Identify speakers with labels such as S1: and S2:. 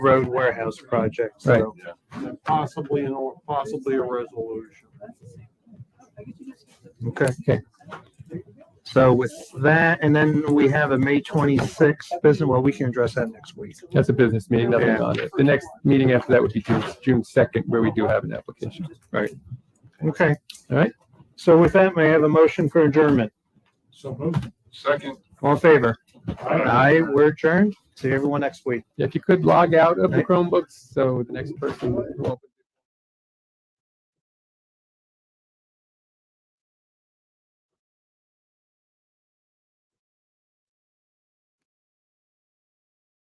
S1: road warehouse project,
S2: Right.
S1: so possibly, an or- possibly a resolution. Okay.
S2: Okay.
S1: So with that, and then we have a May twenty-sixth business, well, we can address that next week.
S2: That's a business meeting, nothing
S1: Yeah.
S2: on it. The next meeting after that would be June, June second, where we do have an application.
S1: Okay.
S2: All right.
S1: So with that, may I have a motion for adjournment?
S3: So moved. Second.
S1: All in favor? Aye, we're adjourned. See everyone next week.
S2: If you could log out of the Chromebooks, so the next person will open.